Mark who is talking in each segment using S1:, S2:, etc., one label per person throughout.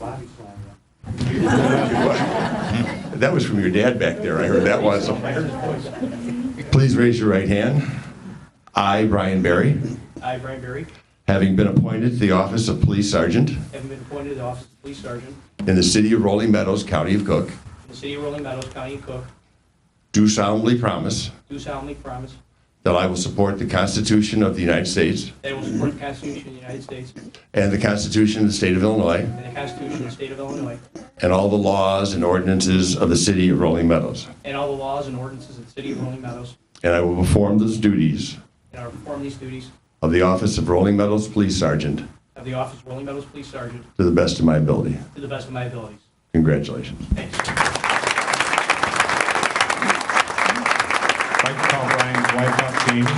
S1: body slam you.
S2: That was from your dad back there. I heard that one. so- Please raise your right hand. I, Brian Barry,
S3: I, Brian Berry,
S2: having been appointed to the office of police sergeant
S3: having been appointed to the office of police sergeant
S2: in the city of Rolling Meadows, County of Cook,
S3: in the city of Rolling Meadows, County of Cook,
S2: do solemnly promise
S3: do solemnly promise
S2: that I will support the Constitution of the United States
S3: that I will support the Constitution of the United States
S2: and the Constitution of the State of Illinois
S3: and the Constitution of the state of Illinois,
S2: and all the laws and ordinances of the city of Rolling Meadows.
S3: and all the laws and ordinances of the city of Rolling Meadows,
S2: And I will perform those duties
S3: and I will perform these duties
S2: of the office of Rolling Meadows Police Sergeant
S3: of the office of Rolling Meadows Police Sergeant
S2: to the best of my ability.
S3: to the best of my abilities.
S2: Congratulations.
S3: Thanks.
S4: I'd like to call Brian's wife up, Jamie.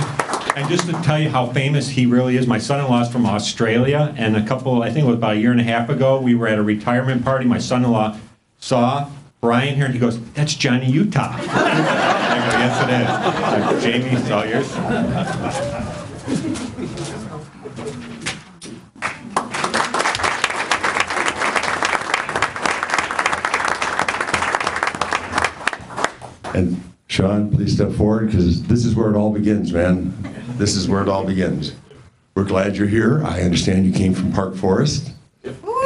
S4: And just to tell you how famous he really is, my son-in-law's from Australia, and a couple, I think it was about a year and a half ago, we were at a retirement party. My son-in-law saw Brian here, and he goes, "That's Johnny Utah." I go, "Yes, it is." Jamie saw yours.
S2: And Sean, please step forward because this is where it all begins, man. This is where it all begins. We're glad you're here. I understand you came from Park Forest.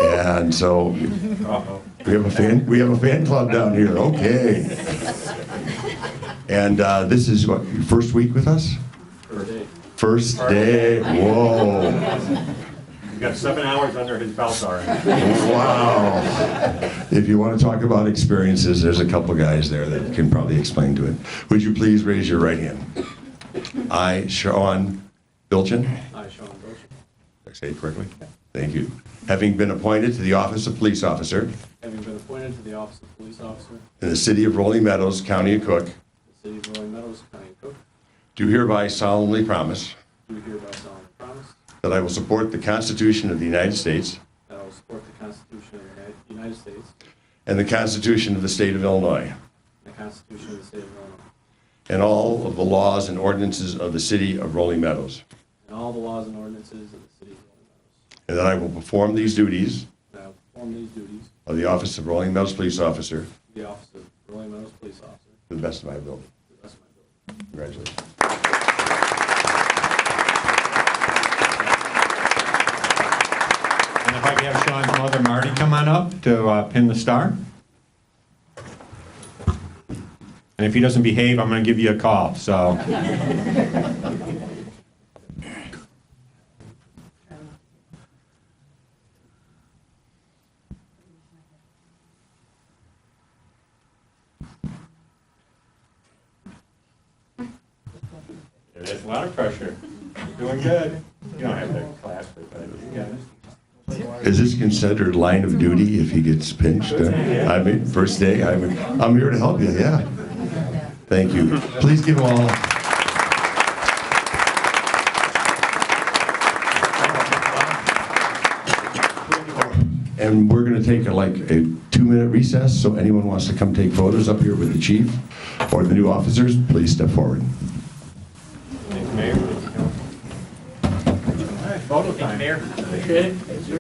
S2: And so we have a fan, we have a fan club down here. Okay. And uh, this is what, your first week with us? First day. First day. Whoa.
S4: We've got seven hours under his belt already.
S2: Wow. If you want to talk about experiences, there's a couple guys there that can probably explain to it. Would you please raise your right hand? I, Sean Bilchin.
S3: I, Sean Bosher,
S2: Did I say it correctly? Thank you. Having been appointed to the office of police officer
S3: having been appointed to the office of police officer in
S2: in the city of Rolling Meadows, County of Cook,
S3: the city of Rolling Meadows, County of Cook,
S2: do hereby solemnly promise
S3: do hereby solemnly promise
S2: that I will support the Constitution of the United States
S3: that I will support the Constitution of the United States
S2: and the Constitution of the state of Illinois
S3: and the Constitution of the state of Illinois,
S2: and all of the laws and ordinances of the city of Rolling Meadows,
S3: and all the laws and ordinances of the city of Rolling Meadows.
S2: and that I will perform these duties
S3: That I will perform these duties
S2: of the office of Rolling Meadows Police Officer
S3: of the office of Rolling Meadows Police Officer
S2: to the best of my ability.
S3: to the best of my ability.
S2: Congratulations.
S4: And if I could have Sean's mother, Marty, come on up to uh, pin the star. And if he doesn't behave, I'm going to give you a call, so. There's a lot of pressure. You're doing good. You don't have to clap, but you got it.
S2: Is this considered line of duty if he gets pinched? Uh, I mean, first day, I'm, I'm here to help you, yeah. Thank you. Please give them all. And we're gonna take a, like a two-minute recess, so anyone wants to come take photos up here with the chief or the new officers, please step forward.
S4: Thank you, Mayor. Photo time. Mayor.